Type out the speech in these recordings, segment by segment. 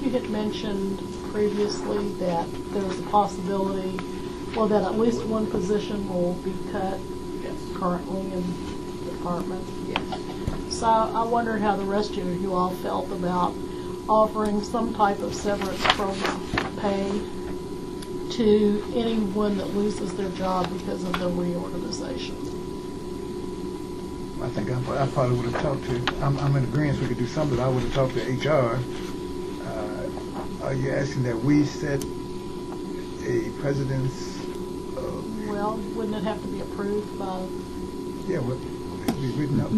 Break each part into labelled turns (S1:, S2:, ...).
S1: you had mentioned previously that there was a possibility, well, that at least one position will be cut
S2: Yes.
S1: currently in the department.
S2: Yes.
S1: So I wondered how the rest of you all felt about offering some type of severance program pay to anyone that loses their job because of the reorganization.
S3: I think I, I probably would have talked to, I'm, I'm in agreement, we could do something, but I would have talked to HR. Uh, Are you asking that we set a precedence of,
S1: Well, wouldn't it have to be approved by,
S3: yeah, what, it'd be written up?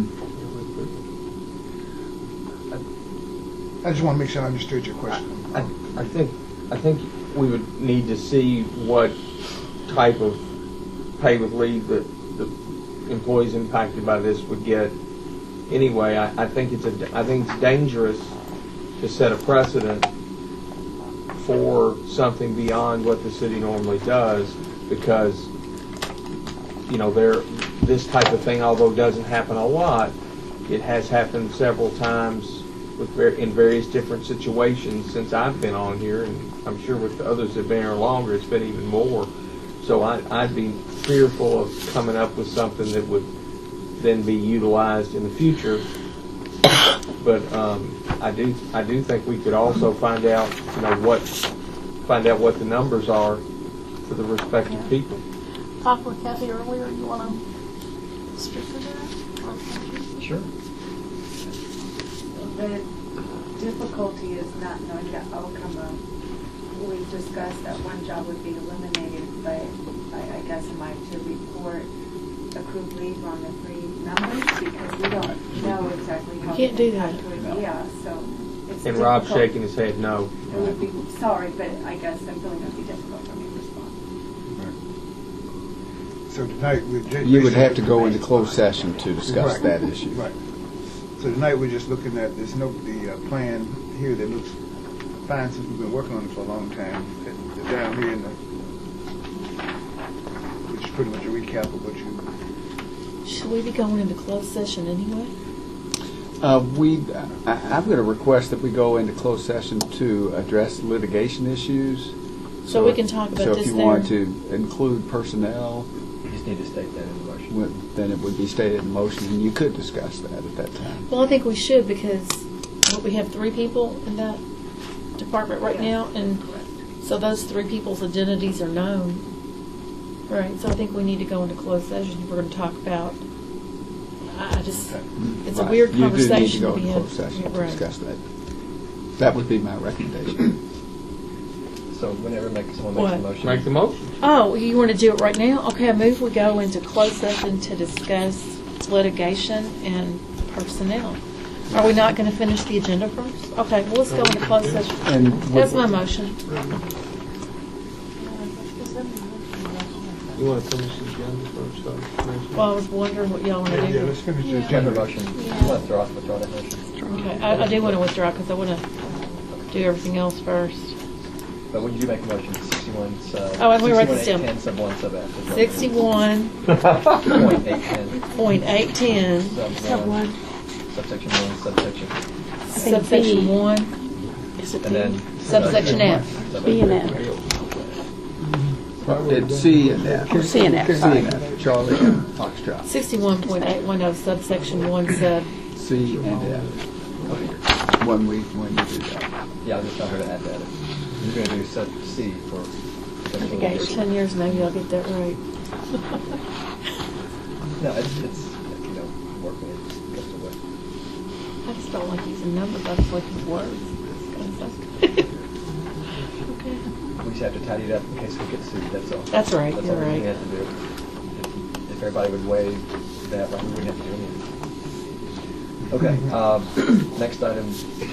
S3: I just want to make sure I understood your question.
S4: I, I think, I think we would need to see what type of pay with leave that the employees impacted by this would get. Anyway, I, I think it's a, I think it's dangerous to set a precedent for something beyond what the city normally does because, you know, there, this type of thing, although doesn't happen a lot, it has happened several times with, var- in various different situations since I've been on here, and I'm sure with the others that have been here longer, it's been even more. So I, I'd be fearful of coming up with something that would then be utilized in the future. But um, I do, I do think we could also find out, you know, what, find out what the numbers are for the respective people.
S1: talked with Kathy earlier, you want to speak to that? Or-
S4: Sure.
S2: The difficulty is not knowing the outcome of, we discussed that one job would be eliminated, but I, I guess am I to report accrued leave on the three numbers? Because we don't know exactly how.
S5: Can't do that.
S2: Yeah, so it's difficult.
S4: And Rob's shaking his head no.
S2: It would be, sorry, but I guess I'm feeling it'd be difficult for me to respond.
S3: So tonight, we're. ju-
S6: You would have to go into closed session to discuss
S3: Right.
S6: that issue.
S3: Right. So tonight, we're just looking at, there's no, the uh, plan here that looks fine since we've been working on it for a long time. And the Down here in the, which is pretty much a recap of what you,
S5: Should we be going into closed session anyway?
S6: Uh, we, I, I'm going to request that we go into closed session to address litigation issues.
S5: So we can talk about
S6: So
S5: this
S6: if you
S5: there.
S6: want to include personnel,
S7: You just need to state that in the motion.
S6: would- then it would be stated in motion, and you could discuss that at that time.
S5: Well, I think we should because what, we have three people in that department right now, and so those three people's identities are known. Right, so I think we need to go into closed session. We're going to talk about, I I just, it's a
S6: Right.
S5: weird
S6: You do need to
S5: conversation
S6: go
S5: to be
S6: into
S5: in.
S6: closed session to
S5: Right.
S6: discuss that. That would be my recommendation.
S7: So whenever make, someone makes a
S5: What?
S7: motion.
S4: Make the motion.
S5: Oh, you want to do it right now? Okay, I move we go into closed session to discuss litigation and personnel. Are we not going to finish the agenda first? Okay, well, let's go into closed session.
S6: And
S5: That's my motion.
S4: You want to finish the agenda first, though? Commissioner?
S5: Well, I was wondering what y'all want to
S3: yeah,
S5: do.
S3: let's finish the
S1: Yeah.
S7: Amend
S3: agenda.
S7: the motion. Withdraw, withdraw that motion.
S5: Okay, I I do want to withdraw because I want to do everything else first.
S7: But when you do make a motion, sixty-one uh, sub.
S5: Oh, and we wrote this down.
S7: 61, 810 sub one sub F. is what it is.
S5: Sixty-one
S7: Point eight ten,
S5: point eight ten,
S7: sub one, subsection one, subsection,
S5: Subsection B. one, is it
S7: and
S5: B?
S7: then.
S5: Subsection F.
S7: Sub-
S8: B and F,
S6: It's C and F.
S8: C and F,
S6: C
S8: sorry.
S6: and F. Charlie and Foxtrot.
S5: Sixty-one point eight one oh, subsection one sub,
S6: C and F. When we, when we do that.
S7: Yeah, I just tell her to add that. You're gonna do sub C for.
S5: okay, for ten years maybe I'll get that right.
S7: No, it's, it's, you know, working, it's just a way.
S5: I just don't like using numbers, I just like using words.
S7: We just have to tidy it up in case we get sued, that's all.
S5: That's right,
S7: That's
S5: you're
S7: all we
S5: right.
S7: have to do. If- If everybody would waive that, like, we wouldn't have to do anything. Okay,
S6: uh,
S7: um, next item, the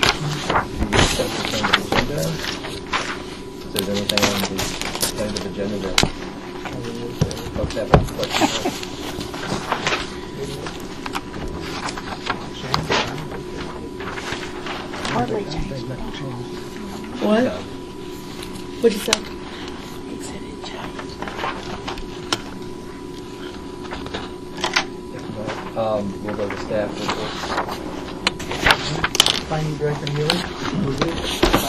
S7: consent agenda. Is there anything on the consent agenda that folks have any questions?
S8: hardly changed.
S5: What?
S7: No.
S5: What'd you say?
S7: If not, Um, we'll go to staff reports.
S3: Planning Director Mueller.